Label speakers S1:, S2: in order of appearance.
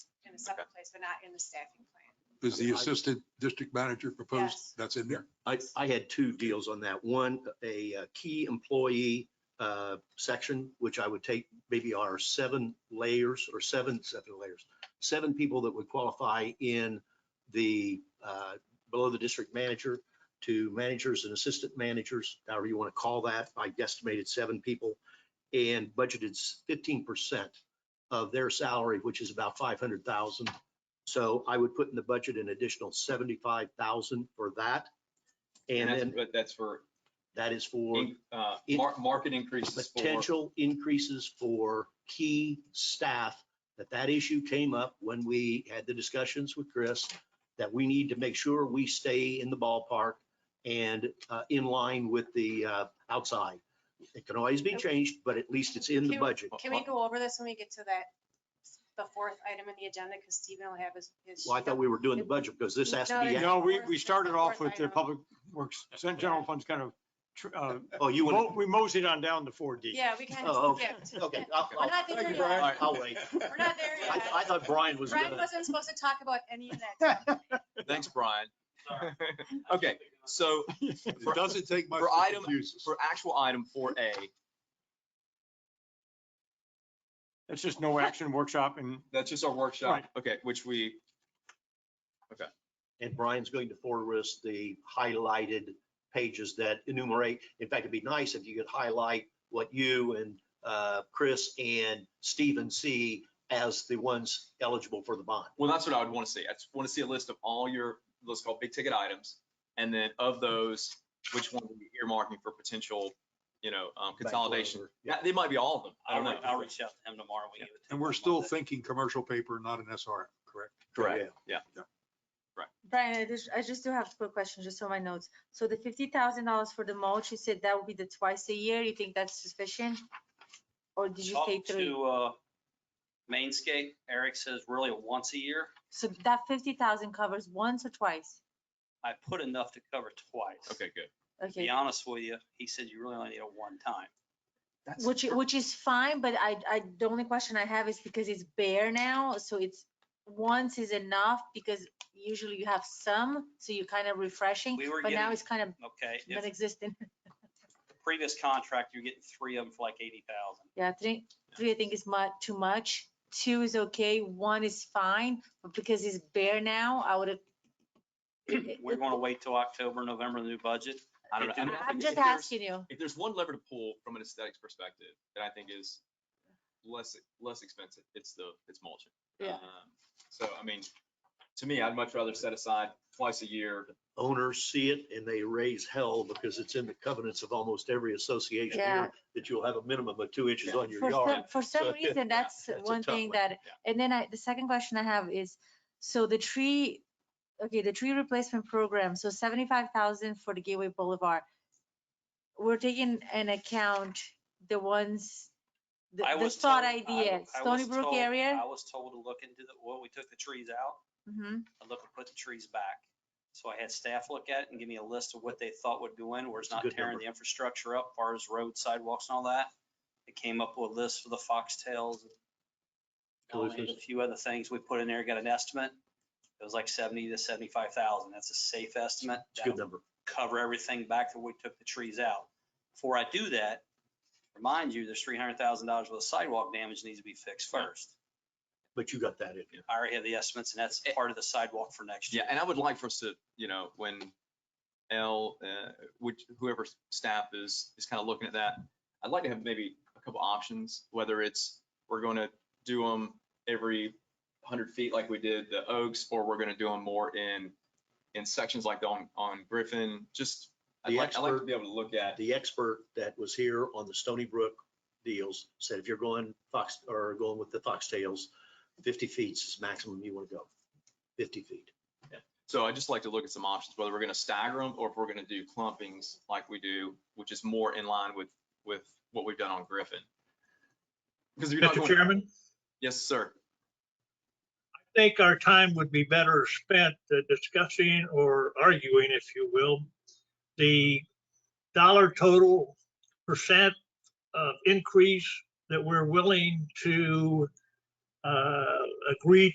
S1: separate place, but not in the staffing plan.
S2: Is the
S3: I-
S2: assistant district manager proposed?
S1: Yes.
S2: That's in there.
S3: I, I had two deals on that. One, a uh, key employee uh, section, which I would take maybe our seven layers or seven, seven layers, seven people that would qualify in the, uh, below the district manager to managers and assistant managers, however you want to call that. I estimated seven people and budgeted fifteen percent of their salary, which is about five hundred thousand. So I would put in the budget an additional seventy-five thousand for that. And
S4: that's-
S3: then
S4: But that's for,
S3: that is for
S4: in- uh,
S3: in-
S4: mar- market increases for,
S3: potential increases for key staff. That that issue came up when we had the discussions with Chris, that we need to make sure we stay in the ballpark and uh, in line with the uh, outside. It can always be changed, but at least it's in the budget.
S1: Can we go over this when we get to that, the fourth item in the agenda, because Stephen will have his. his-
S3: Well, I thought we were doing the budget because this has to be,
S1: Yeah.
S5: No, we, we
S1: Fourth-
S5: started off
S1: fourth
S5: with the
S1: item.
S5: public works, Sen- general funds kind of, tr- uh,
S3: oh, you
S5: mo-
S3: want
S5: we moseyed on down to four D.
S1: Yeah, we kind of
S3: Oh, okay.
S1: skipped.
S3: to, okay. I'll-
S1: We're
S3: I'll-
S1: not there
S4: Thank you,
S1: yet.
S4: Brian.
S3: I'll wait.
S1: We're not there
S3: I,
S1: yet.
S3: I thought Brian was
S1: Brian
S3: gonna,
S1: wasn't supposed to talk about any of that.
S5: It
S4: thanks, Brian. Okay, so
S2: It doesn't take much
S4: For
S2: to
S4: item-
S2: confuse us.
S4: for actual item four A,
S5: It's just no action workshop and
S4: that's just our workshop,
S5: Right.
S4: okay, which we,
S3: and Brian's going to forward us the highlighted pages that enumerate. In fact, it'd be nice if you could highlight what you and uh, Chris and Stephen see as the ones eligible for the bond.
S4: well, that's what I would want to see. I just want to see a list of all your, let's call big ticket items. And then of those, which one would be earmarking for potential, you know, um, consolidation?
S3: Yeah.
S4: Yeah, they might be all of them. I don't know.
S6: I'll reach out to him tomorrow. when you get the
S2: And we're
S6: tape
S2: still
S6: on that.
S2: thinking commercial paper, not an SRM, correct?
S4: Correct.
S3: Yeah.
S7: Brian, I just, I just do have a quick question, just on my notes. So the fifty thousand dollars for the mulch, you said that would be the twice a year, you think that's sufficient? Or did you say
S6: Talk
S7: three?
S6: to, uh, Mainscape, Eric says really once a year.
S7: So that fifty thousand covers once or twice?
S6: I put enough to cover twice.
S4: Okay, good.
S6: To be
S7: Okay,
S6: honest with you, he said you really only need a one time.
S4: That's
S7: which, which is fine, but I, I, the only question I have is because it's bare now, so it's, once is enough, because usually you have some, so you're kind of refreshing,
S6: We were
S7: but now
S6: getting-
S7: it's kind of
S6: Okay, if
S7: non-existent.
S6: the previous contract, you're getting three of them for like eighty thousand.
S7: Yeah, three, three I think is mu- too much. Two is okay, one is fine, but because it's bare now, I would have.
S6: We're gonna wait till October, November, the new budget.
S4: I don't know. I mean, I
S7: I'm
S4: think
S7: just
S4: if there's-
S7: asking you.
S4: If there's one lever to pull from an aesthetics perspective that I think is less, less expensive, it's the, it's mulching.
S7: Yeah.
S4: Um, So, I mean, to me, I'd much rather set aside twice a year.
S3: Owners see it and they raise hell because it's in the covenants of almost every association
S7: Yeah.
S3: here that you'll have a minimum of two inches on your
S7: For
S3: yard.
S7: some, for some
S3: So,
S7: reason, that's
S3: that's a
S7: one
S3: tough
S7: thing
S3: one,
S7: that, and then I, the second question I have is, so the tree, okay, the tree replacement program, so seventy-five thousand for the Gateway Boulevard. We're taking an account the ones, the
S6: I
S7: the
S6: was
S7: spot
S6: told- I-
S7: idea,
S6: I
S7: Stony
S6: was
S7: Brook
S6: told-
S7: area.
S6: I was told to look into the, well, we took the trees out.
S7: hmm
S6: I look at putting trees back. So I had staff look at it and give me a list of what they thought would go in, where it's
S3: It's a
S6: not
S3: good
S6: tearing
S3: number.
S6: the infrastructure up, far as roads, sidewalks and all that. It came up with a list for the foxtails. and A
S3: Delicious.
S6: few other things we put in there, got an estimate. It was like seventy to seventy-five thousand. That's a safe estimate.
S3: It's a good
S6: That'll
S3: number.
S6: cover everything back to we took the trees out. Before I do that, remind you, there's three hundred thousand dollars worth of sidewalk damage needs to be fixed first.
S3: But you got that in.
S6: I already have the estimates and that's
S3: Eh.
S6: part of the sidewalk for next
S4: Yeah,
S6: year.
S4: and I would like for us to, you know, when L, uh, which whoever staff is, is kind of looking at that, I'd like to have maybe a couple options, whether it's, we're going to do them every hundred feet like we did the Oaks, or we're going to do them more in, in sections like on, on Griffin, just, I'd
S3: The
S4: like, I'd like to
S3: expert-
S4: be able to look at.
S3: the expert that was here on the Stony Brook deals said if you're going fox, or going with the foxtails, fifty feet is maximum you want to go, fifty feet.
S4: So I'd just like to look at some options, whether we're gonna stagger them or if we're gonna do clumpings like we do, which is more in line with, with what we've done on Griffin. Because if you're not
S8: Mr.
S4: going,
S8: Chairman,
S4: yes, sir.
S8: I think our time would be better spent uh, discussing or arguing, if you will, the dollar total percent of increase that we're willing to uh, agree